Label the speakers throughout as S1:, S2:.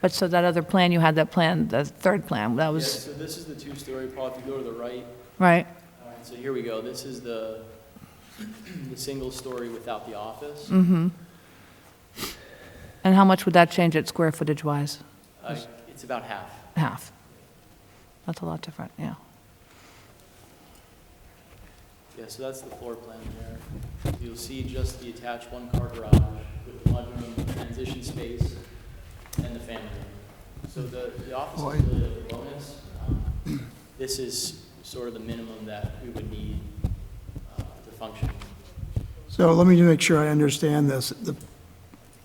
S1: But so that other plan, you had that plan, the third plan, that
S2: Yeah,
S1: was,
S2: so this is the two-story, Paul, if you go to the right,
S1: right?
S2: all right, so here we go, this is the, the single story without the office.
S1: And how much would that change it square footage wise?
S2: Uh, It's about half.
S1: Half. That's a lot different, yeah.
S2: Yeah, so that's the floor plan there. You'll see just the attached one-car garage with the mudroom, the transition space, and the family room. So the, the office is really a bonus. Um, This is sort of the minimum that we would need uh, to function.
S3: So let me just make sure I understand this. The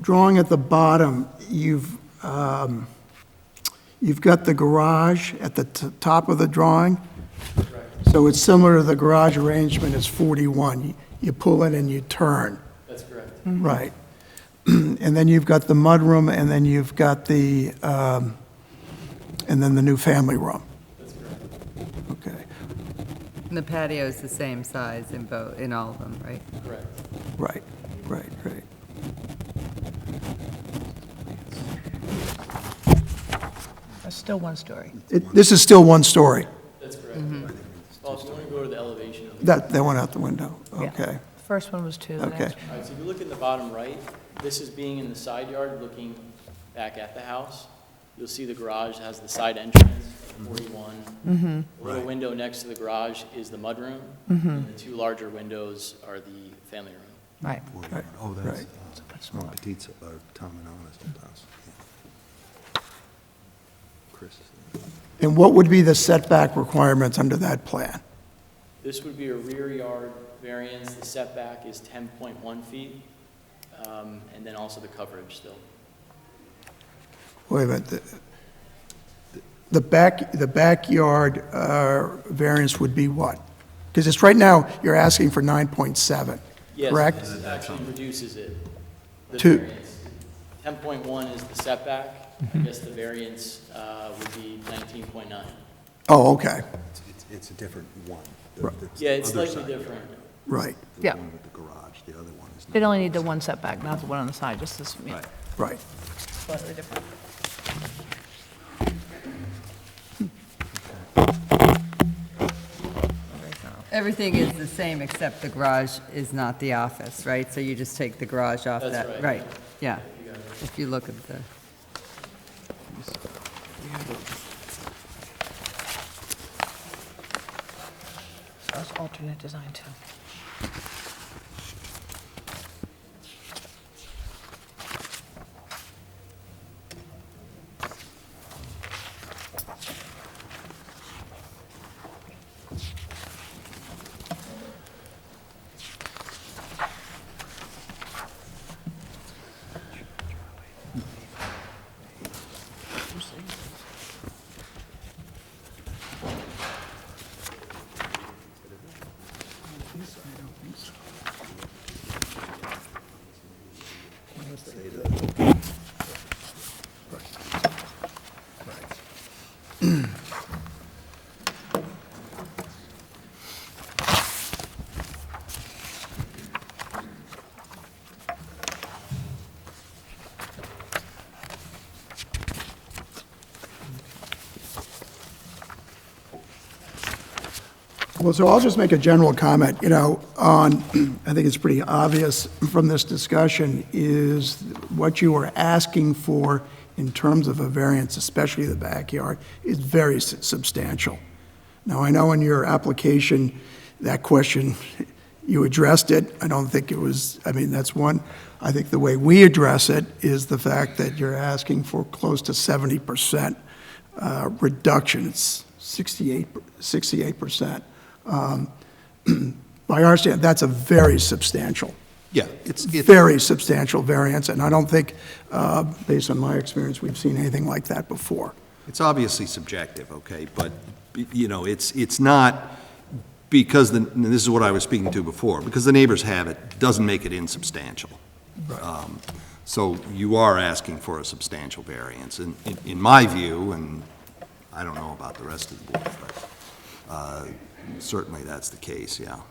S3: drawing at the bottom, you've, um, you've got the garage at the t- top of the drawing. So it's similar to the garage arrangement, it's 41. You- You pull in and you turn,
S2: That's correct.
S3: right? And then you've got the mudroom, and then you've got the, um, and then the new family room. That's correct. Okay,
S4: And the patio is the same size in both, in all of them, right?
S2: Correct.
S3: right, right, right.
S1: That's still one story.
S3: It- This is still one story.
S2: That's correct. Paul, if you want to go to the elevation of the
S3: That, that went out the window,
S1: Yeah.
S3: okay.
S1: First one was two, the
S3: Okay.
S1: next.
S2: All right, so if you look in the bottom right, this is being in the side yard, looking back at the house. You'll see the garage has the side entrance, 41. The little window next to the garage is the mudroom. And the two larger windows are the family room.
S1: Right.
S3: Right,
S5: Oh, that's,
S3: right.
S1: much
S5: uh, Mon Petit's, or Tom and Anna's old house. yeah. Chris.
S3: And what would be the setback requirements under that plan?
S2: This would be a rear yard variance. The setback is 10.1 feet. um, And then also the coverage still.
S3: Wait a minute, the- the back, the backyard uh, variance would be what? Because it's, right now, you're asking for 9.7, correct?
S2: Yes, this actually reduces it, the
S3: Two.
S2: variance. 10.1 is the setback.
S3: Mm-hmm.
S2: I guess the variance uh, would be 19.9.
S3: Oh, okay,
S5: It's- It's, it's a different one. The-
S3: Right.
S5: the
S2: Yeah, it's
S5: other
S2: slightly
S5: side
S2: different.
S5: yard,
S3: right,
S1: Yeah.
S5: The one with the garage, the other one is not.
S1: They'd only need the one setback, not the one on the side, just this, yeah.
S5: Right.
S3: right.
S1: Slightly different.
S4: Everything is the same, except the garage is not the office, right? So you just take the garage off
S2: That's
S4: that,
S2: right.
S4: right, yeah. If you look at the,
S1: So it's alternate design too.
S3: Well, so I'll just make a general comment, you know, on, I think it's pretty obvious from this discussion, is what you are asking for in terms of a variance, especially the backyard, is very s- substantial. Now, I know in your application, that question, you addressed it. I don't think it was, I mean, that's one. I think the way we address it is the fact that you're asking for close to 70% uh, reduction. It's 68, 68%. Um, By our standard, that's a very substantial,
S5: Yeah, it's, it's,
S3: very substantial variance, and I don't think, uh, based on my experience, we've seen anything like that before.
S5: it's obviously subjective, okay, but, you know, it's, it's not, because the, and this is what I was speaking to before, because the neighbors have it, doesn't make it insubstantial. Um, So you are asking for a substantial variance, in, in- in my view, and I don't know about the rest of the board, but uh, certainly that's the case, yeah.